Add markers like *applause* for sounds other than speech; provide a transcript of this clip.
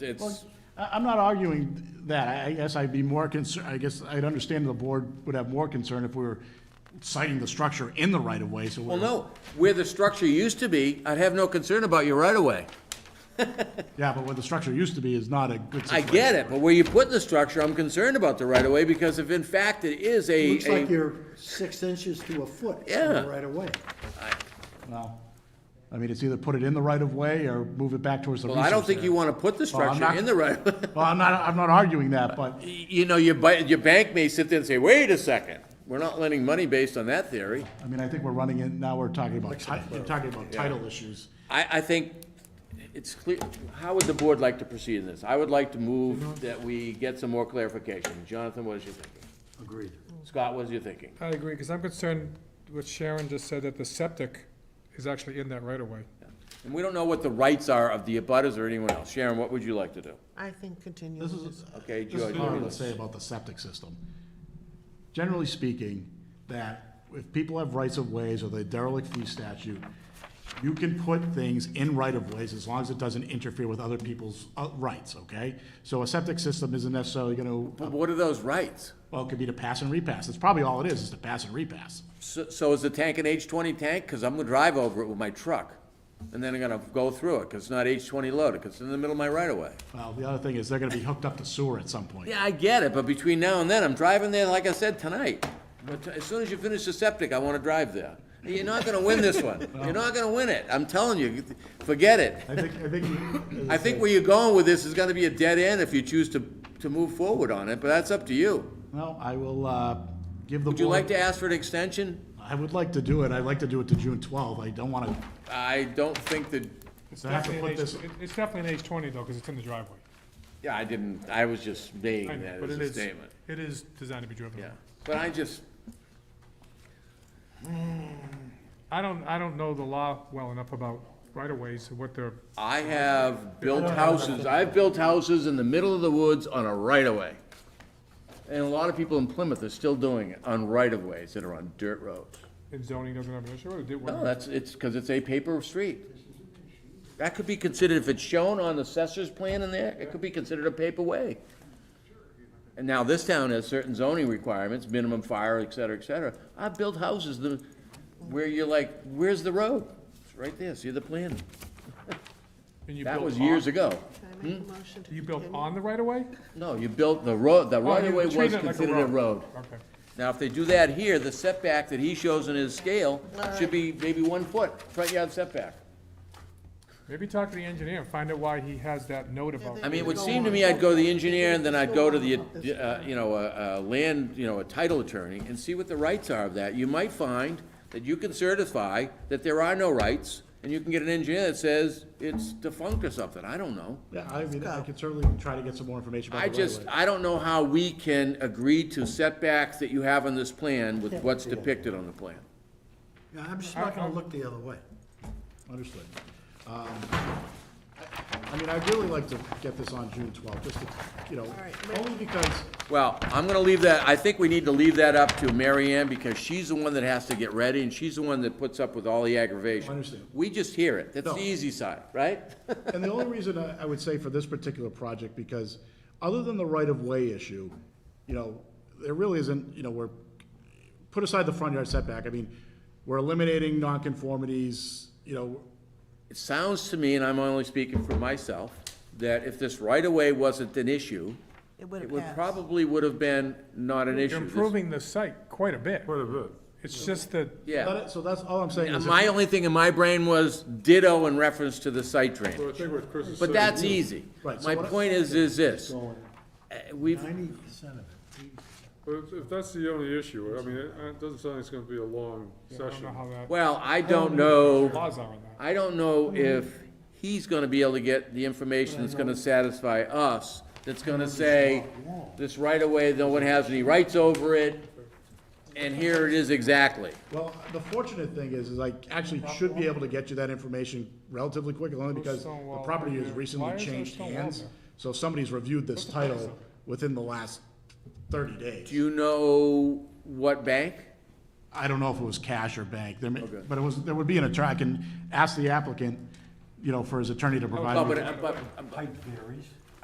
It's, I- I'm not arguing that. I- I guess I'd be more concerned, I guess I'd understand the board would have more concern if we were citing the structure in the right-of-way, so well, we're... no, where the structure used to be, I'd have no concern about your right of way. Yeah, but where the structure used to be is not a good I situation. get it, but where you put the structure, I'm concerned about the right of way because if in fact it is a, Looks like a, you're six inches to a foot Yeah. right away. Well, I mean, it's either put it in the right-of-way or move it back towards the well, resource I don't think you area. want to put the Well, I'm structure not- in the right of way. *laughs* Well, I'm not, I'm not arguing that, but, You know, your, ba- your bank may sit there and say, wait a second, we're not lending money based on that theory. I mean, I think we're running in, now we're talking about, ti- we're talking about title issues. I, I think it's clear, how would the board like to proceed in this? I would like to move that we get some more clarification. Jonathan, what is your thinking? Agreed. Scott, what is your thinking? I agree, because I'm concerned what Sharon just said, that the septic is actually in that right-of-way. And we don't know what the rights are of the abutters or anyone else. Sharon, what would you like to do? I think continue This with is, this. Okay, This George. is what I would say about the septic system. Generally speaking, that if people have rights of ways or the derelict fee statute, you can put things in right of ways as long as it doesn't interfere with other people's uh, rights, okay? So a septic system isn't necessarily gonna, But what are those rights? well, it could be to pass and repass. That's probably all it is, is to pass and repass. So, so is the tank an H twenty tank? Cause I'm gonna drive over it with my truck. And then I'm gonna go through it, cause it's not H twenty loaded, cause it's in the middle of my right of way. Well, the other thing is they're gonna be hooked up to sewer at some point. Yeah, I get it, but between now and then, I'm driving there, like I said, tonight. But as soon as you finish the septic, I wanna drive there. You're not gonna win this one. You're not gonna win it. I'm telling you, forget it. I think, I think. you- *laughs* I think where you're going with this is gonna be a dead end if you choose to, to move forward on it, but that's up to you. Well, I will, uh, give the board. Would you like to ask for an extension? I would like to do it. I'd like to do it to June twelfth. I don't wanna, I don't think that, It's So I have to definitely put an this- H- it- It's definitely an H twenty, though, because it's in the driveway. yeah, I didn't, I was just I making know, that but as it a is- statement. It is designed to be driven. Yeah, but I just, I don't, I don't know the law well enough about right-of-ways, and what they're, I have built houses, I've built houses in the middle of the woods on a right-of-way. And a lot of people in Plymouth are still doing it on right-of-ways that are on dirt roads. and zoning doesn't have an issue, with. it did No, work. that's, it's, because it's a paper street. That could be considered, if it's shown on the assessor's plan in there, it could be considered a paper way. And now this town has certain zoning requirements, minimum fire, et cetera, et cetera. I've built houses that, where you're like, where's the road? It's right there, see the plan? And you That built was on- years ago. Can I make a motion to You built continue? on the right-of-way? No, you built the road, the Oh, right you of way treat was it like considered a road. Okay. Now, if they do that here, the setback that he shows in his scale should be maybe one foot, front yard setback. Maybe talk to the engineer and find out why he has that note about. I mean, it would seem to me I'd go to the engineer and then I'd go to the, uh, you know, a, a land, you know, a title attorney and see what the rights are of that. You might find that you can certify that there are no rights and you can get an engineer that says it's defunct or something. I don't know. yeah, I mean, I could certainly try to get some more information about I the right just, I don't know how we can agree to setbacks that you have on this plan with what's depicted on the plan. Yeah, I'm just not gonna look the other way. Understood. Um, I I mean, I'd really like to get this on June 12th, just to, you know, right, only because, Well, I'm gonna leave that, I think we need to leave that up to Mary Ann, because she's the one that has to get ready, and she's the one that puts up with all the aggravation. I understand. We just hear it, that's No. the easy side, right? *laughs* and the only reason I I would say for this particular project, because other than the right-of-way issue, you know, there really isn't, you know, we're, put aside the front yard setback, I mean, we're eliminating nonconformities, you know, It sounds to me, and I'm only speaking for myself, that if this right-of-way wasn't an issue, It would it have would passed. probably would have been not an You're issue. This- improving the site quite a bit. Quite a bit. It's just that, Yeah. That- so that's, all I'm saying And is, My only thing in my brain was ditto in reference to the site drain, Well, I think what Chris is but saying, that's easy. Right, so My what I- point is, is this, Uh, we've, Ninety percent of it. but if- if that's the only issue, I mean, it it doesn't sound like it's gonna be a long I don't session. know how that, well, I don't know. laws are on that. I don't know if he's gonna be able to get the information that's gonna satisfy us, that's gonna say, this right away, no one has any rights over it, and here it is exactly. well, the fortunate thing is, is I actually should be able to get you that information relatively quickly, only because stone the wall property right has there? Why recently is there changed stone wall hands. there? So somebody's reviewed this title within the last thirty Do days. you know what bank? I don't know if it was cash or bank, there may, but it was, there would be an attorney, I can ask the applicant, you know, for his attorney to Oh, provide but, me. but- but- Height varies.